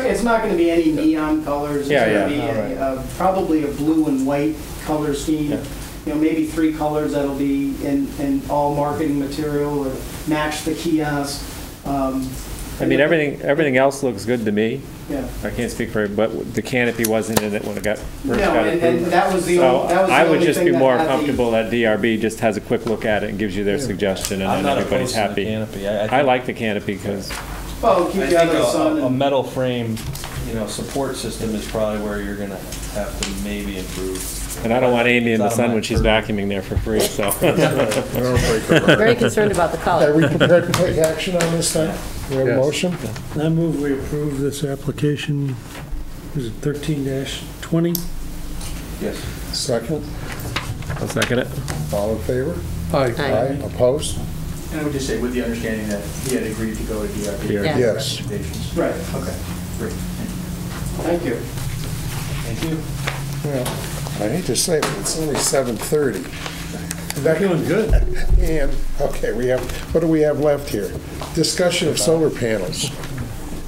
It's not gonna be any neon colors. It's Yeah, gonna yeah, be all right. a- a- Probably a blue and white color scheme, Yeah. you know, maybe three colors that'll be in, in all marketing material or match the kiosk. um, I mean, everything, everything else looks good to me. Yeah. I can't speak for, but the canopy wasn't in it when it got, No, first got and, and approved. that was the So only, that was the I would only just thing be that more had the- comfortable that DRB just has a quick look at it and gives you their suggestion I'm and then not everybody's opposed to the happy. canopy. I like the canopy because, Well, I Oh, keep think you out of the sun. a, a and- metal frame, you know, support system is probably where you're gonna have to maybe improve. and I don't want Amy in the It's out of sun my when she's vacuuming there for free, so. Very concerned about the Are color. we prepared to take action on this thing? We have a Yes. motion? I move we approve this application, is it 13-20? Yes. Second? I'll second it. All in favor? Aye. Aye. Opposed? And I would just say, with the understanding that he had agreed to go to DRB. Yeah. Yes. Recommendations. Right, Okay, great. thank you. Thank you. Well, I hate to say it, but it's only 7:30. We're doing good. And, okay, we have, what do we have left here? Discussion of solar panels.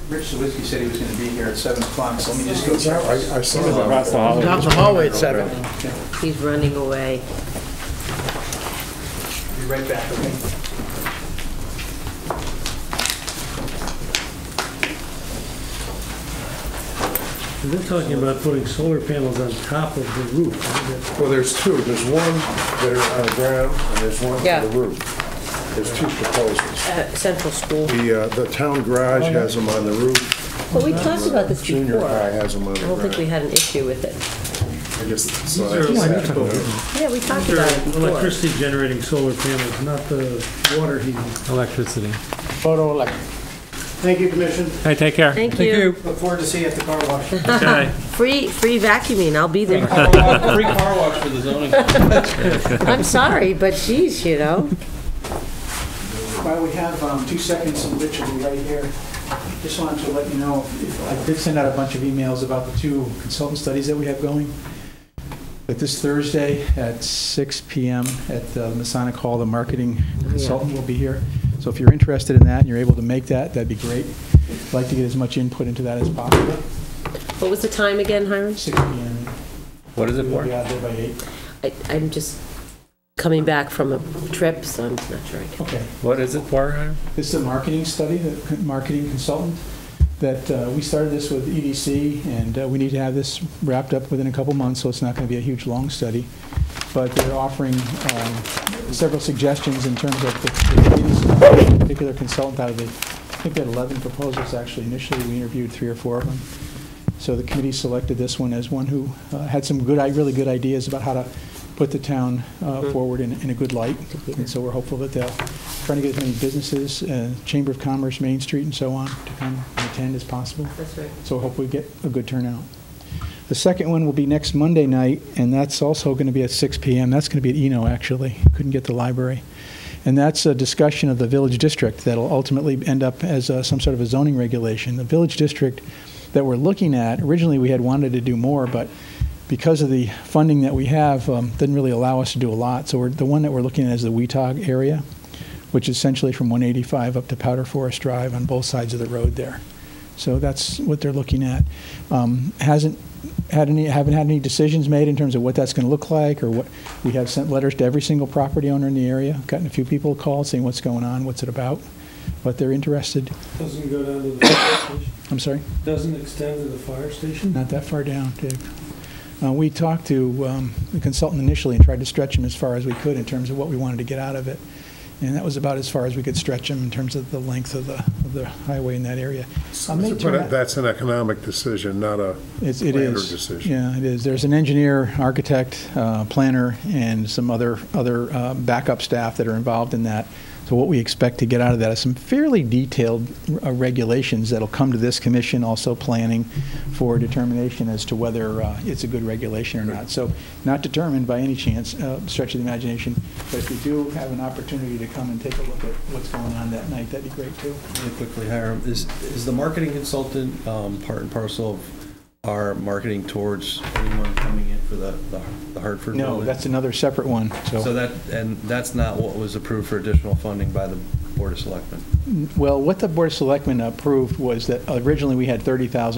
Rich Zawiski said he was going to be here at 7 o'clock, so let me just go Is that check. right? I saw that. Across the hall. Down the hallway at seven. He's running away. Be right back, okay? They're talking about putting solar panels on top of the roof. I think Well, there's two. There's one that are on the ground, and there's one Yeah. on the roof. There's two proposals. Uh, Central School. The, uh, the town garage has them on the roof. But we talked about this Junior before. high I has them on the don't think we ground. had an issue with it. I just saw These that are this electrical. afternoon. Yeah, we talked These about are it before. Electricity generating solar panels, not the water heating. Electricity. Photo elect. Thank you, Commission. Hey, take care. Thank you. Look forward to see you at the car wash. Bye. Free, free vacuuming, I'll be there. Car wash- Free car wash for the zoning. I'm sorry, but geez, you know. While we have um, two seconds, and Rich will be right here, just wanted to let you know, I did send out a bunch of emails about the two consultant studies that we have going. But this Thursday at 6 PM at the Masonic Hall, the marketing consultant will be here. So if you're interested in that and you're able to make that, that'd be great. I'd like to get as much input into that as possible. What was the time again, Hiram? 6 PM. What is it We'll for? be out there by 8. I, I'm just coming back from a trip, so I'm not sure I can. Okay. What is it for, Hiram? This is a marketing study, the c- marketing consultant, that uh, we started this with EDC, and uh, we need to have this wrapped up within a couple months, so it's not going to be a huge, long study. But they're offering um, several suggestions in terms of the the particular consultant out of the, I think they had 11 proposals, actually. Initially, we interviewed three or four of them. So the committee selected this one as one who uh, had some good, i- really good ideas about how to put the town uh, forward in in a good light. And so we're hopeful that they'll, trying to get as many businesses, uh, Chamber of Commerce, Main Street and so on, to come and attend as possible. That's right. So hopefully we get a good turnout. The second one will be next Monday night, and that's also going to be at 6 PM. That's going to be at Eno, actually. Couldn't get the library. And that's a discussion of the village district that'll ultimately end up as uh, some sort of a zoning regulation. The village district that we're looking at, originally, we had wanted to do more, but because of the funding that we have, um, didn't really allow us to do a lot. So we're, the one that we're looking at is the Weetog area, which is essentially from 185 up to Powder Forest Drive on both sides of the road there. So that's what they're looking at. Um, Hasn't had any, haven't had any decisions made in terms of what that's going to look like or what, we have sent letters to every single property owner in the area, gotten a few people called saying what's going on, what's it about, but they're interested. Doesn't go down to the fire station, I'm sorry, doesn't extend to the fire station? not that far down, Dave. Uh, We talked to um, the consultant initially and tried to stretch him as far as we could in terms of what we wanted to get out of it. And that was about as far as we could stretch him in terms of the length of the, of the highway in that area. I may But turn out- That's an economic decision, not a, It's, it Planner is. decision. Yeah, it is. There's an engineer, architect, uh, planner, and some other, other uh, backup staff that are involved in that. So what we expect to get out of that is some fairly detailed uh, regulations that'll come to this commission, also planning for determination as to whether uh, it's a good regulation or not. So not determined by any chance, uh, stretch of the imagination, but if you do have an opportunity to come and take a look at what's going on that night, that'd be great too. Really quickly, Hiram, is, is the marketing consultant um, part and parcel of our marketing towards anyone coming in for the the the Hartford? No, building? that's another separate one, So that, and that's not what was approved for additional funding by the Board of Selectmen? Well, what the Board of Selectmen approved was that originally we had 30,000